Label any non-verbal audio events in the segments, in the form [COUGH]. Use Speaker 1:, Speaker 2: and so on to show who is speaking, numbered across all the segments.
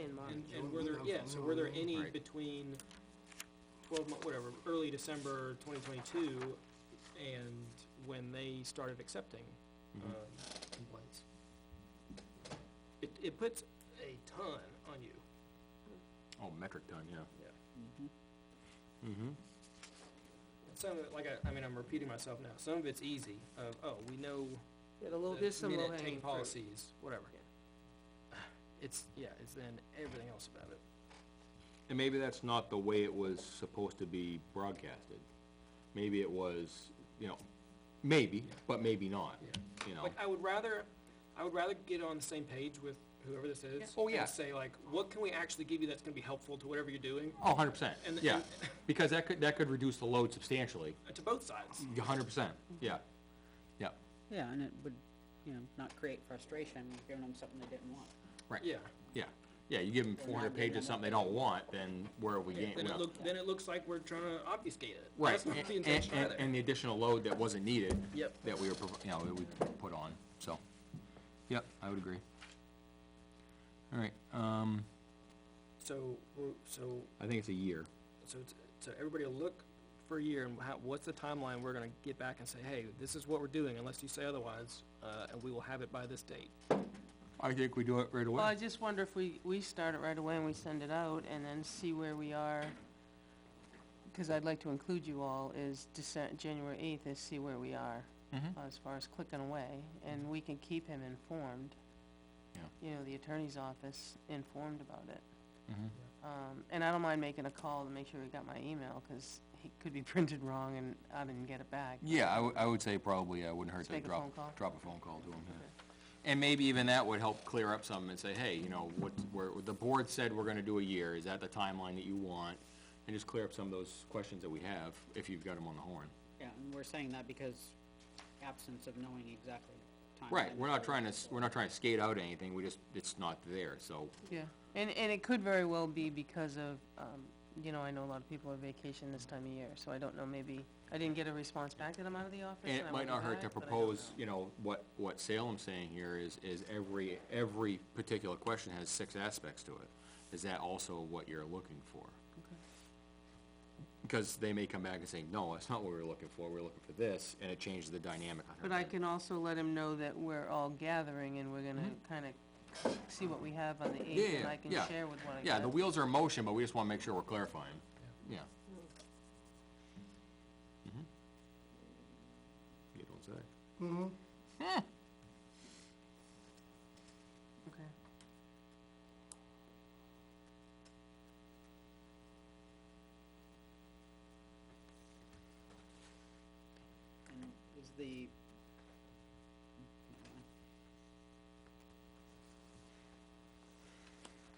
Speaker 1: And, and were there, yeah, so were there any between twelve month, whatever, early December twenty twenty-two and when they started accepting, um, complaints? It, it puts a ton on you.
Speaker 2: Oh, metric ton, yeah.
Speaker 1: Yeah. Mm-hmm. Some of it, like I, I mean, I'm repeating myself now, some of it's easy, of, oh, we know
Speaker 3: Yeah, the little,
Speaker 1: the
Speaker 3: there's some low
Speaker 1: minute
Speaker 3: hanging
Speaker 1: take
Speaker 3: fruit.
Speaker 1: policies, whatever.
Speaker 3: Yeah.
Speaker 1: It's, yeah, it's then everything else about it.
Speaker 2: And maybe that's not the way it was supposed to be broadcasted. Maybe it was, you know, maybe, but maybe not, you know?
Speaker 1: Like, I would rather, I would rather get on the same page with whoever this is.
Speaker 2: Oh, yeah.
Speaker 1: And say like, what can we actually give you that's gonna be helpful to whatever you're doing,
Speaker 2: Oh, hundred percent,
Speaker 1: And-
Speaker 2: yeah,
Speaker 1: and-
Speaker 2: because that could, that could reduce the load substantially,
Speaker 1: uh, to both sides.
Speaker 2: a hundred percent, yeah, yeah,
Speaker 4: Yeah, and it would, you know, not create frustration, giving them something they didn't want.
Speaker 2: right.
Speaker 1: Yeah.
Speaker 2: Yeah, yeah, you give them
Speaker 4: They're
Speaker 2: four
Speaker 4: not
Speaker 2: hundred
Speaker 4: getting
Speaker 2: pages,
Speaker 4: enough.
Speaker 2: something they don't want, then where are we getting?
Speaker 1: Then
Speaker 2: you
Speaker 1: it
Speaker 2: know?
Speaker 1: look, then it looks like we're trying to obfuscate it.
Speaker 2: Right,
Speaker 1: That's not the
Speaker 2: and,
Speaker 1: intention
Speaker 2: and,
Speaker 1: either.
Speaker 2: and the additional load that wasn't needed.
Speaker 1: Yep.
Speaker 2: That we were, provi- you know, that we put on, so, yep, I would agree. All right, um,
Speaker 1: So, we're- so,
Speaker 2: I think it's a year.
Speaker 1: so, it's- so everybody will look for a year and how, what's the timeline we're gonna get back and say, hey, this is what we're doing unless you say otherwise, uh, and we will have it by this date.
Speaker 2: I think we do it right
Speaker 3: Well,
Speaker 1: Uh,
Speaker 3: I just wonder if we, we start it right away and we send it out and then see where we are. Cause I'd like to include you all is Decem- January eighth is see where we are
Speaker 2: Mhm.
Speaker 3: as far as clicking away and we can keep him informed.
Speaker 2: Yeah.
Speaker 3: You know, the attorney's office informed about it.
Speaker 2: mm-hmm.
Speaker 3: Um, and I don't mind making a call to make sure we got my email, cause it could be [LAUGHS] printed wrong and I didn't get it back.
Speaker 2: Yeah, I would, I would say probably, I wouldn't hurt
Speaker 3: Just
Speaker 2: to
Speaker 3: make a phone call.
Speaker 2: drop, drop a phone call to them, yeah. And maybe even that would help clear up some and say, hey, you know, what, where, the board said we're gonna do a year, is that the timeline that you want? And just clear up some of those questions that we have, if you've got them on the horn.
Speaker 4: Yeah, and we're saying that because absence of knowing exactly time.
Speaker 2: Right, we're not trying to, s- we're not trying to skate out anything, we just, it's not there, so,
Speaker 3: Yeah, and, and it could very well be because of, um, you know, I know a lot of people are vacation this time of year, so I don't know, maybe, I didn't get a response back that I'm out of the office
Speaker 2: and
Speaker 3: and
Speaker 2: it
Speaker 3: I
Speaker 2: might
Speaker 3: won't
Speaker 2: not
Speaker 3: be
Speaker 2: hurt to
Speaker 3: back, but I don't
Speaker 2: propose,
Speaker 3: know.
Speaker 2: you know, what, what Salem's saying here is, is every, every particular question has six aspects to it. Is that also what you're looking for? Because they may come back and say, no, that's not what we were looking for, we were looking for this, and it changes the dynamic on her.
Speaker 3: But I
Speaker 2: end.
Speaker 3: can also let him know that we're all gathering and we're gonna kinda see what we have on the eighth,
Speaker 2: Yeah,
Speaker 3: and I can
Speaker 2: yeah.
Speaker 3: share with what I got.
Speaker 2: Yeah, the wheels are in motion, but we just wanna make sure we're clarifying, yeah. Mhm. You don't say.
Speaker 3: Okay.
Speaker 4: And is the.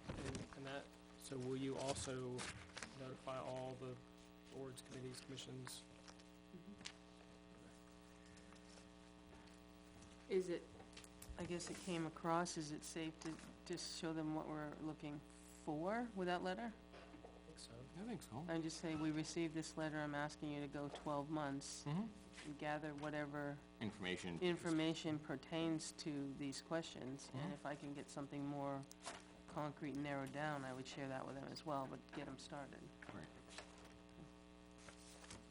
Speaker 1: And- And that, so will you also notify all the boards, committees, commissions?
Speaker 3: Is it, I guess it came across, is it safe to just show them what we're looking for with that letter?
Speaker 1: I think so.
Speaker 2: I think so.
Speaker 3: And just say, we received this letter, I'm asking you to go twelve months
Speaker 2: Mhm.
Speaker 3: and gather whatever
Speaker 2: Information.
Speaker 3: information pertains to these questions, and if I can get something more concrete and narrowed down, I would share that with them as well, but get them started. Mm-hmm.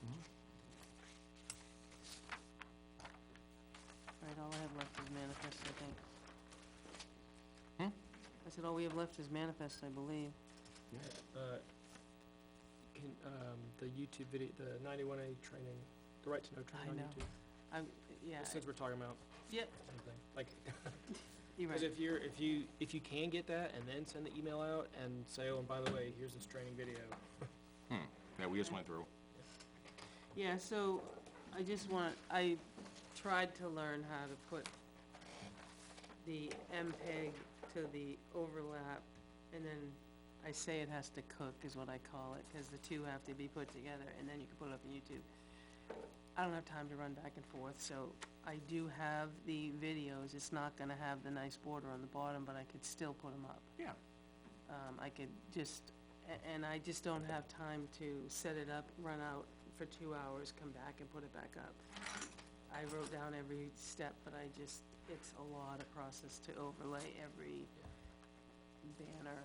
Speaker 2: Right.
Speaker 3: All right, all I have left is manifest, I think.
Speaker 2: Hmm?
Speaker 3: I said, all we have left is manifest, I believe.
Speaker 1: Uh, Can, um, the YouTube video, the ninety-one A training, the right to know
Speaker 3: I
Speaker 1: training on
Speaker 3: know.
Speaker 1: YouTube,
Speaker 3: I, yeah,
Speaker 1: since we're talking about
Speaker 3: yep,
Speaker 1: something, like,
Speaker 3: you're
Speaker 1: cause
Speaker 3: right.
Speaker 1: if you're, if you, if you can get that and then send the email out and say, oh, and by the way, here's this training video.
Speaker 2: That we just went through.
Speaker 3: Yeah, so I just want, I tried to learn how to put the MPEG to the overlap, and then I say it has to cook is what I call it, because the two have to be put together, and then you can put it up on YouTube. I don't have time to run back and forth, so I do have the videos, it's not gonna have the nice border on the bottom, but I could still put them up
Speaker 2: Yeah.
Speaker 3: um, I could just, a- and I just don't have time to set it up, run out for two hours, come back and put it back up. I wrote down every step, but I just, it's a lot of process to overlay every banner,